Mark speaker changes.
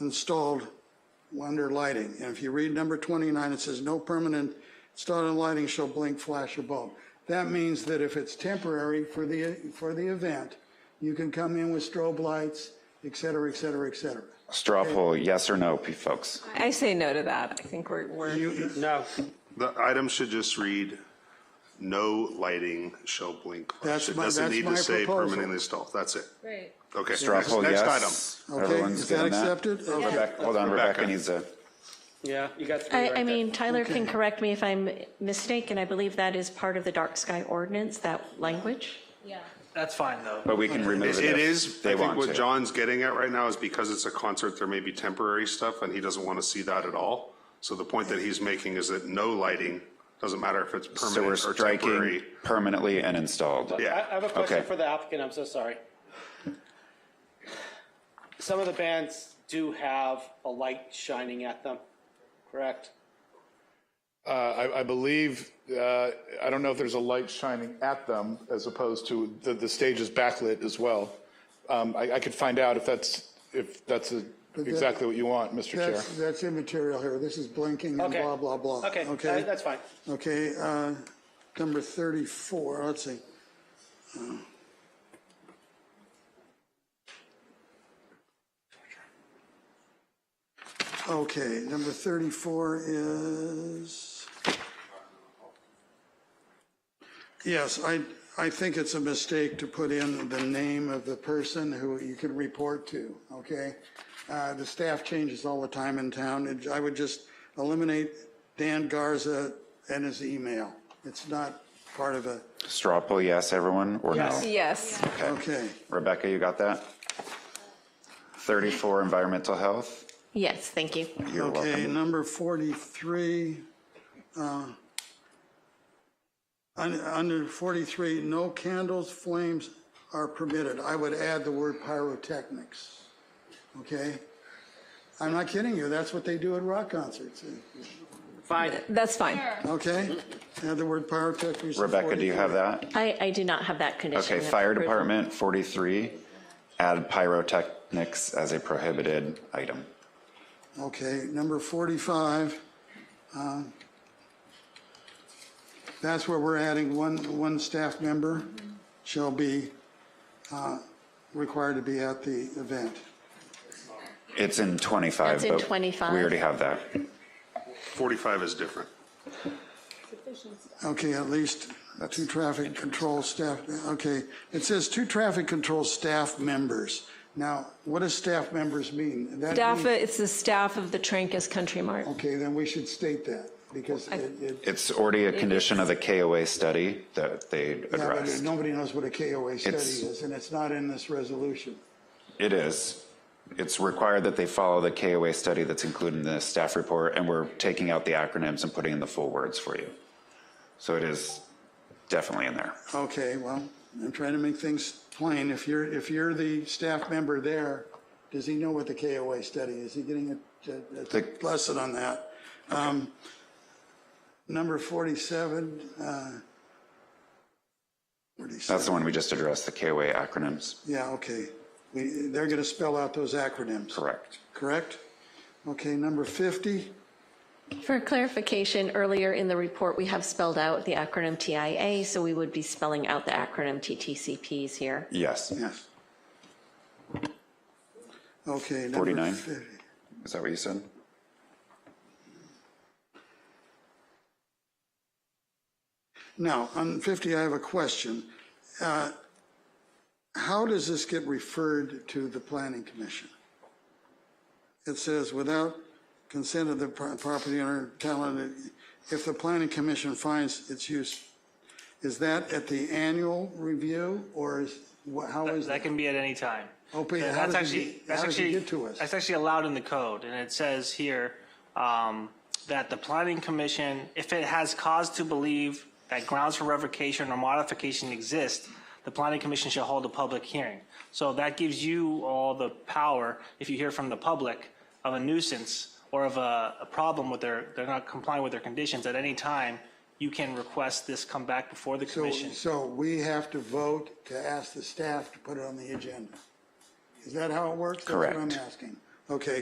Speaker 1: installed under lighting. And if you read number 29, it says, "No permanent installed lighting shall blink, flash, or bulb." That means that if it's temporary for the, for the event, you can come in with strobe lights, et cetera, et cetera, et cetera.
Speaker 2: Straw poll, yes or no, p- folks?
Speaker 3: I say no to that. I think we're, we're,
Speaker 1: You,
Speaker 4: No.
Speaker 5: The item should just read, no lighting shall blink. flash."
Speaker 1: That's
Speaker 5: It
Speaker 1: my-
Speaker 5: doesn't
Speaker 1: that's
Speaker 5: need
Speaker 1: my
Speaker 5: to say
Speaker 1: proposal.
Speaker 5: permanently installed, that's it.
Speaker 6: Right.
Speaker 5: Okay,
Speaker 2: Straw
Speaker 5: next,
Speaker 2: poll,
Speaker 5: next
Speaker 2: yes?
Speaker 5: item.
Speaker 1: okay,
Speaker 2: Everyone's
Speaker 1: is that
Speaker 2: getting
Speaker 1: accepted? Okay.
Speaker 2: Rebecca- Hold on, Rebecca needs a,
Speaker 4: Yeah, you got three right
Speaker 6: I,
Speaker 4: there.
Speaker 6: I mean, Tyler can correct me if I'm mistaken. I believe that is part of the dark sky ordinance, that language.
Speaker 7: Yeah.
Speaker 4: That's fine, though.
Speaker 2: but we can remove it if
Speaker 5: It is,
Speaker 2: they
Speaker 5: I think
Speaker 2: want
Speaker 5: what
Speaker 2: to.
Speaker 5: John's getting at right now is because it's a concert, there may be temporary stuff, and he doesn't want to see that at all. So the point that he's making is that no lighting, doesn't matter if it's
Speaker 2: So we're
Speaker 5: permanent or
Speaker 2: striking
Speaker 5: temporary.
Speaker 2: permanently and installed.
Speaker 5: Yeah.
Speaker 4: I I have a question
Speaker 2: Okay.
Speaker 4: for the applicant, I'm so sorry. Some of the bands do have a light shining at them, correct?
Speaker 8: Uh, I, I believe, uh, I don't know if there's a light shining at them as opposed to the, the stage is backlit as well. Um, I, I could find out if that's, if that's a- exactly what you want, Mr. Chair.
Speaker 1: That's, that's immaterial here. This is blinking and
Speaker 4: Okay.
Speaker 1: blah, blah, blah.
Speaker 4: Okay, uh, that's fine.
Speaker 1: Okay, uh, number 34, let's see. Okay, number 34 is, yes, I, I think it's a mistake to put in the name of the person who you can report to, okay? Uh, The staff changes all the time in town. and I would just eliminate Dan Garza and his email. It's not part of a,
Speaker 2: Straw poll, yes, everyone, or no?
Speaker 3: yes.
Speaker 1: okay.
Speaker 2: Rebecca, you got that? 34, environmental health?
Speaker 6: Yes, thank you.
Speaker 2: You're
Speaker 1: Okay,
Speaker 2: welcome.
Speaker 1: number 43, uh, un- under 43, no candles, flames are permitted. I would add the word pyrotechnics, okay? I'm not kidding you, that's what they do at rock concerts,
Speaker 4: Fine.
Speaker 3: That's fine.
Speaker 1: okay? Add the word pyrotechnics. to
Speaker 2: Rebecca, do you have
Speaker 1: 43.
Speaker 2: that?
Speaker 6: I, I do not have that condition.
Speaker 2: Okay,
Speaker 6: of
Speaker 2: fire
Speaker 6: approval.
Speaker 2: department, 43, add pyrotechnics as a prohibited item.
Speaker 1: Okay, number 45. um, That's where we're adding one, one staff member shall be uh, required to be at the event.
Speaker 2: It's in 25,
Speaker 6: That's in
Speaker 2: but
Speaker 6: 25.
Speaker 2: we already have that.
Speaker 5: 45 is different.
Speaker 1: Okay, at least two traffic control staff, okay. It says two traffic control staff members. Now, what does staff members mean? That
Speaker 3: Staff,
Speaker 1: means-
Speaker 3: it's the staff of the Trancas Country Mart.
Speaker 1: Okay, then we should state that because it, it-
Speaker 2: It's already a condition of the KOA study that they
Speaker 1: yeah, but
Speaker 2: addressed.
Speaker 1: nobody knows what a KOA study
Speaker 2: It's-
Speaker 1: is and it's not in this resolution.
Speaker 2: It is. It's required that they follow the KOA study that's included in the staff report, and we're taking out the acronyms and putting in the full words for you. So it is definitely in there.
Speaker 1: Okay, well, I'm trying to make things plain. If you're, if you're the staff member there, does he know what the KOA study is? Is he getting a- a, a
Speaker 2: The-
Speaker 1: lesson on that? Um, Number 47, uh, 47.
Speaker 2: That's the one we just addressed, the KOA acronyms.
Speaker 1: Yeah, okay. We, they're going to spell out those acronyms,
Speaker 2: Correct.
Speaker 1: correct? Okay, number 50,
Speaker 6: For clarification, earlier in the report, we have spelled out the acronym TIA, so we would be spelling out the acronym TTCPs here.
Speaker 2: Yes.
Speaker 1: yes. Okay. number
Speaker 2: 49.
Speaker 1: 50.
Speaker 2: Is that what you said?
Speaker 1: Now, on 50, I have a question. Uh, How does this get referred to the planning commission? It says, without consent of the pro- property owner, talented, if the planning commission finds its use, is that at the annual review or is, wha- how is
Speaker 9: That
Speaker 1: that?
Speaker 9: can be at any time.
Speaker 1: Oh, but how
Speaker 9: That- that's
Speaker 1: does it
Speaker 9: actually
Speaker 1: get-
Speaker 9: that's
Speaker 1: how does it
Speaker 9: actually-
Speaker 1: get to us?
Speaker 9: That's actually allowed in the code, and it says here um, that the planning commission, if it has cause to believe that grounds for revocation or modification exist, the planning commission shall hold a public hearing. So that gives you all the power, if you hear from the public, of a nuisance or of a, a problem with their, they're not complying with their conditions, at any time, you can request this come back before the
Speaker 1: So,
Speaker 9: commission.
Speaker 1: so we have to vote to ask the staff to put it on the agenda. Is that how it works? That's what I'm
Speaker 2: Correct.
Speaker 1: asking. Okay.